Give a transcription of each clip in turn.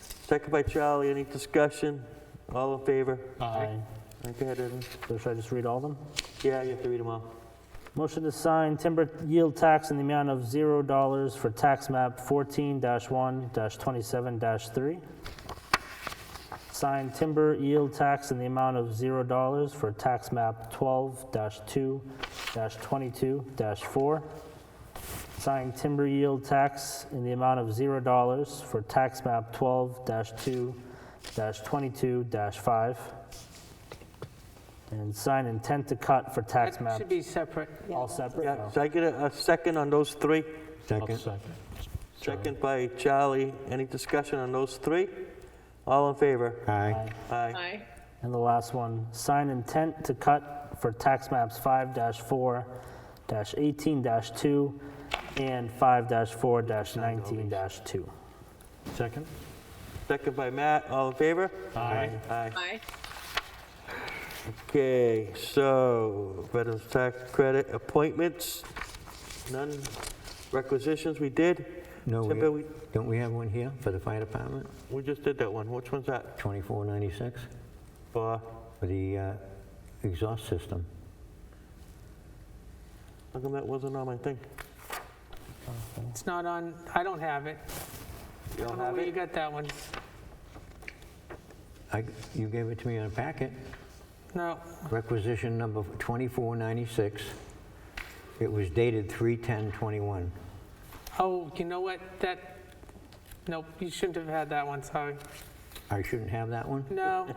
Second by Charlie, any discussion? All in favor? Aye. Go ahead, Evan. So should I just read all of them? Yeah, you have to read them all. Motion to sign timber yield tax in the amount of zero dollars for tax map fourteen one twenty-seven three. Sign timber yield tax in the amount of zero dollars for tax map twelve two twenty-two four. Sign timber yield tax in the amount of zero dollars for tax map twelve two twenty-two five. And sign intent to cut for tax That map should be separate. all separate? Yeah, so I get a, a second on those three? Second. Second by Charlie, any discussion on those three? All in favor? Aye. Aye. Aye. And the last one, sign intent to cut for tax maps 5-4, 18-2, and 5-4, 19-2. Second? Second by Matt, all in favor? Aye. Aye. Aye. Okay, so Veterans Tax Credit appointments, none. Requisitions, we did. No, we- Timber, we, Don't we have one here for the fire department, we just did that one. Which one's that 2496, for? for the uh, exhaust system? How come that wasn't on my thing? It's not on, I don't have it. You I don't don't know have where you it? got that one. I- You gave it to me in a packet, No, requisition number 2496. It was dated 3/10/21. oh, you know what, that, nope, you shouldn't have had that one, sorry. I shouldn't have that one? No.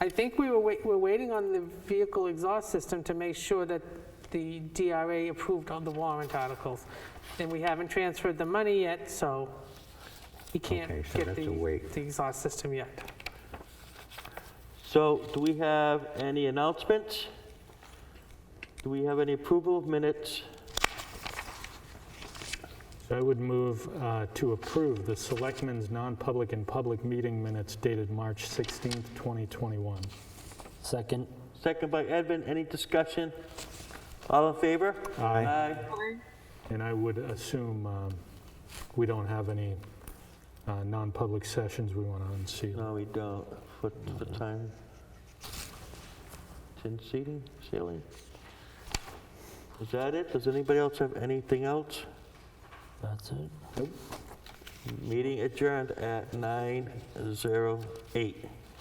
I think we were, wait- we're waiting on the vehicle exhaust system to make sure that the DRA approved on the warrant articles. And we haven't transferred the money yet, so we Okay, can't so get that's a the, wait. the exhaust system yet. So do we have any announcements? Do we have any approval of minutes? So I would move uh, to approve the Selectmen's non-public and public meeting minutes dated March 16th, 2021. Second. Second by Edvin, any discussion? All in favor? Aye. Aye. And I would assume um, we don't have any uh, non-public sessions we want to unseal. No, we don't. For, for time. Tin seating, ceiling. Is that it? Does anybody else have anything else? That's it. Meeting adjourned at 9:08.